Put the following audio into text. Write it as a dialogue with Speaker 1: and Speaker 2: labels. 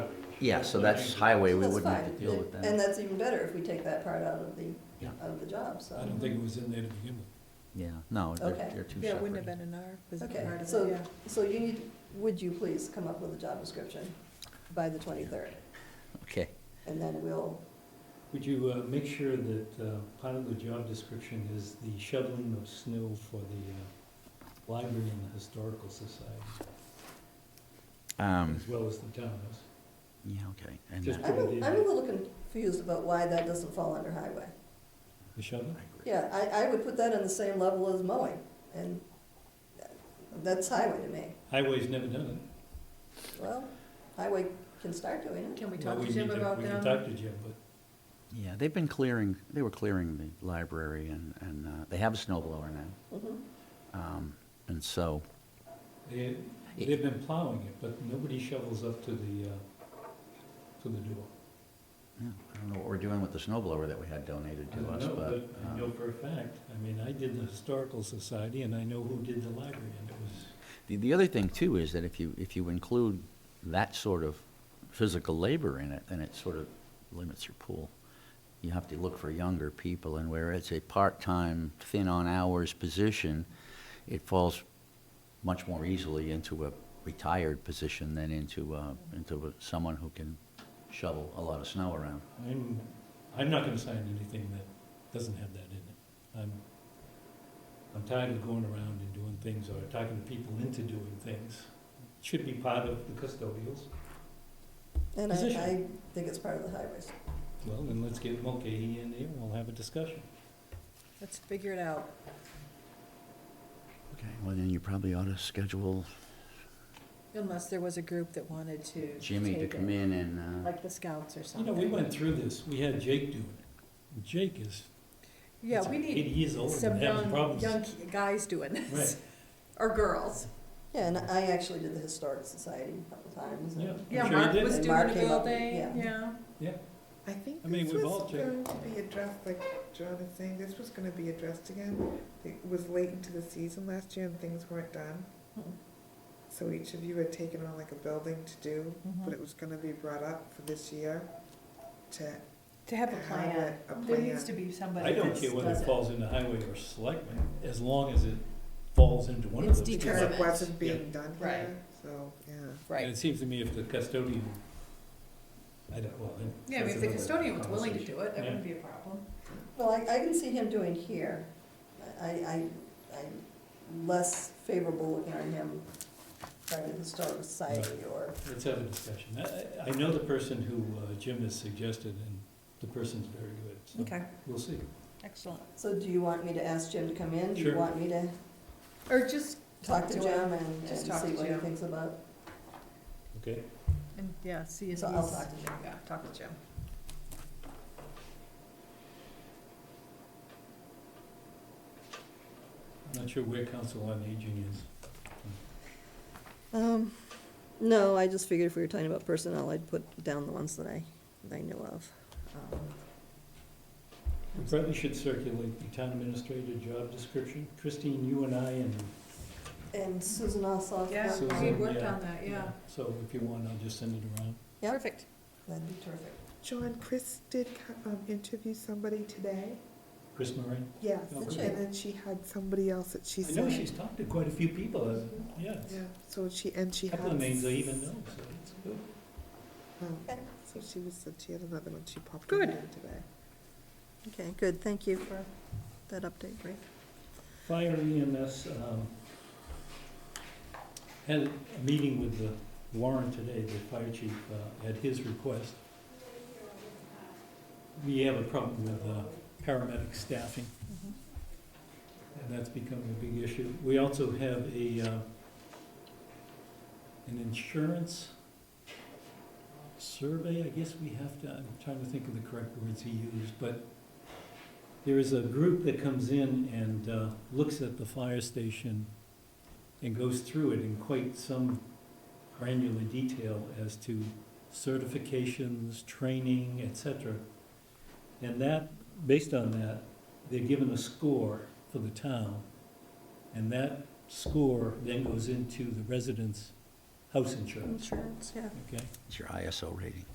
Speaker 1: Yeah, so that's highway, we
Speaker 2: That's
Speaker 1: wouldn't have
Speaker 2: fine.
Speaker 1: to deal with that.
Speaker 2: And that's even better if we take that part out of the,
Speaker 1: Yeah.
Speaker 2: out of the job, so.
Speaker 3: I don't think it was in there to begin with.
Speaker 1: Yeah, no, they're,
Speaker 2: Okay.
Speaker 1: they're two
Speaker 4: Yeah, it wouldn't have
Speaker 1: separate.
Speaker 4: been an R, was part
Speaker 2: Okay,
Speaker 4: of it,
Speaker 2: so,
Speaker 4: yeah.
Speaker 2: so you need, would you please come up with a job description by the twenty-third?
Speaker 1: Okay,
Speaker 2: And then we'll,
Speaker 3: Would you uh, make sure that uh, part of the job description is the shoveling of snow for the uh, library and the historical society,
Speaker 1: um,
Speaker 3: as well as the townhouse?
Speaker 1: yeah, okay, and uh,
Speaker 3: Just-
Speaker 1: that-
Speaker 2: I'm, a- I'm a little confused about why that doesn't fall under highway.
Speaker 3: The shoveling?
Speaker 2: Yeah, I, I would put that on the same level as mowing, and that's highway to me.
Speaker 3: Highway's never done
Speaker 2: Well, highway can start doing it.
Speaker 4: Can we
Speaker 3: it.
Speaker 4: talk
Speaker 3: Well,
Speaker 4: to Jim
Speaker 3: need
Speaker 4: about
Speaker 3: We can
Speaker 4: them?
Speaker 3: talk to Jim, but
Speaker 1: yeah, they've been clearing, they were clearing the library and, and, uh, they have a snow blower now.
Speaker 2: Mhm.
Speaker 1: Um, and so,
Speaker 3: they, they've been plowing it, but nobody shovels up to the, uh, to the door.
Speaker 1: yeah, I don't know what we're doing with the snow blower that we had donated
Speaker 3: I
Speaker 1: to
Speaker 3: don't
Speaker 1: us,
Speaker 3: know,
Speaker 1: but,
Speaker 3: I know
Speaker 1: um,
Speaker 3: for a fact, I mean, I did the historical society and I know who did the library and it was
Speaker 1: the, the other thing too is that if you, if you include that sort of physical labor in it, then it sort of limits your pool. You have to look for younger people, and where it's a part-time, thin-on-hours position, it falls much more easily into a retired position than into, uh, into a- someone who can shovel a lot of snow around.
Speaker 3: I'm, I'm not gonna sign anything that doesn't have that in it. I'm, I'm tired of going around and doing things or talking to people into doing things. It Should be part of the custodials.
Speaker 2: And I,
Speaker 3: Position.
Speaker 2: I think it's part of the highways.
Speaker 3: Well, then let's get Mulcahy in there and we'll have a discussion.
Speaker 4: Let's figure it out.
Speaker 1: Okay, well, then you probably ought to schedule
Speaker 4: Unless there was a group that wanted to.
Speaker 1: Jimmy to
Speaker 4: take
Speaker 1: come
Speaker 4: it,
Speaker 1: in and, uh,
Speaker 4: Like the scouts or
Speaker 3: You know,
Speaker 4: something.
Speaker 3: we went through this. We had Jake do it. Jake is,
Speaker 4: Yeah,
Speaker 3: is
Speaker 4: we
Speaker 3: eighty
Speaker 4: need
Speaker 3: years old
Speaker 4: some
Speaker 3: and having
Speaker 4: young,
Speaker 3: problems.
Speaker 4: young ki- guys doing this,
Speaker 3: Right.
Speaker 4: or girls.
Speaker 2: Yeah, and I actually did the historic society a couple times. and-
Speaker 3: Yeah. I'm
Speaker 4: Yeah,
Speaker 3: sure you
Speaker 4: Mark
Speaker 3: did.
Speaker 4: was
Speaker 2: And
Speaker 4: doing
Speaker 2: Mark
Speaker 4: it
Speaker 2: came
Speaker 4: all
Speaker 2: up with-
Speaker 4: day,
Speaker 2: yeah.
Speaker 4: yeah.
Speaker 3: Yeah.
Speaker 5: I think
Speaker 3: I mean,
Speaker 5: this
Speaker 3: we've
Speaker 5: was
Speaker 3: all checked.
Speaker 5: going to be addressed, like Jonathan's saying, this was gonna be addressed again. It was late into the season last year and things weren't done.
Speaker 2: Mhm.
Speaker 5: So each of you had taken on like a building to do, but it was gonna be brought up for this year to
Speaker 4: To have a
Speaker 5: have
Speaker 4: plan.
Speaker 5: it, a
Speaker 4: There needs to
Speaker 5: plan.
Speaker 4: be
Speaker 3: I
Speaker 4: somebody
Speaker 3: don't
Speaker 4: that
Speaker 3: care whether
Speaker 4: does
Speaker 3: it
Speaker 4: it.
Speaker 3: falls into highway or selectmen, as long as it falls into one of
Speaker 4: It's
Speaker 3: those. two.
Speaker 5: Because it
Speaker 4: Determined,
Speaker 5: wasn't
Speaker 3: yeah.
Speaker 5: being done
Speaker 4: Right.
Speaker 5: here, so, yeah.
Speaker 3: And it
Speaker 4: Right.
Speaker 3: seems to me if the custodian, I don't, well, then.
Speaker 4: Yeah, I mean,
Speaker 3: that's
Speaker 4: if the
Speaker 3: another
Speaker 4: custodian was willing to do it, that
Speaker 3: Yeah.
Speaker 4: wouldn't be a problem.
Speaker 2: Well, I, I can see him doing here. I, I, I'm less favorable looking on him trying to historic society or,
Speaker 3: conversation. Let's have a discussion. I- I, I know the person who uh, Jim has suggested, and the person's very good, so.
Speaker 4: Mm-hmm.
Speaker 3: We'll see.
Speaker 4: excellent.
Speaker 2: so do you want me to ask Jim to come in? Do you
Speaker 3: Sure.
Speaker 2: want me to
Speaker 4: Or just
Speaker 2: talk to Jim
Speaker 4: him
Speaker 2: and, and
Speaker 4: Just
Speaker 2: see
Speaker 4: talk to
Speaker 2: what he
Speaker 4: Jim.
Speaker 2: thinks about?
Speaker 3: Okay.
Speaker 4: And, yeah, see if
Speaker 2: So I'll
Speaker 4: he's-
Speaker 2: talk to Jim.
Speaker 4: Yeah, talk to Jim.
Speaker 3: I'm not sure where council on aging is.
Speaker 2: Um, no, I just figured if we were talking about personnel, I'd put down the ones that I, that I knew of. Um,
Speaker 3: We probably should circulate the town administrator job description. Christine, you and I and.
Speaker 2: And Susan Ossoff.
Speaker 4: Yeah,
Speaker 3: Susan,
Speaker 4: we worked
Speaker 3: yeah,
Speaker 4: on that, yeah.
Speaker 3: uh, So if you want, I'll just send it around.
Speaker 2: Yeah.
Speaker 4: Perfect.
Speaker 2: That'd be terrific.
Speaker 5: John, Chris did co- um, interview somebody today.
Speaker 3: Chris Moran?
Speaker 5: Yes,
Speaker 3: Did
Speaker 2: she?
Speaker 5: and then she had somebody else that she
Speaker 3: I
Speaker 5: said.
Speaker 3: know she's talked to quite a few people, uh, yeah.
Speaker 5: Yeah, so she, and she
Speaker 3: A
Speaker 5: had.
Speaker 3: couple of names I even know, so it's good.
Speaker 5: Um,
Speaker 2: Okay.
Speaker 5: So she was, said she had another one she popped in
Speaker 4: Good.
Speaker 5: there today.
Speaker 2: Okay, good. Thank you for that update, Rick.
Speaker 3: Fire EMS um, had a meeting with the Warren today, the fire chief, uh, at his request. We have a problem with uh, paramedic staffing,
Speaker 4: Mm-hmm.
Speaker 3: and that's becoming a big issue. We also have a, uh, an insurance survey, I guess we have to, I'm trying to think of the correct words he used, but there is a group that comes in and uh, looks at the fire station and goes through it in quite some granular detail as to certifications, training, et cetera. And that, based on that, they're given a score for the town. And that score then goes into the residents' house insurance,
Speaker 2: Insurance, yeah.
Speaker 3: okay?
Speaker 1: it's your ISO rating.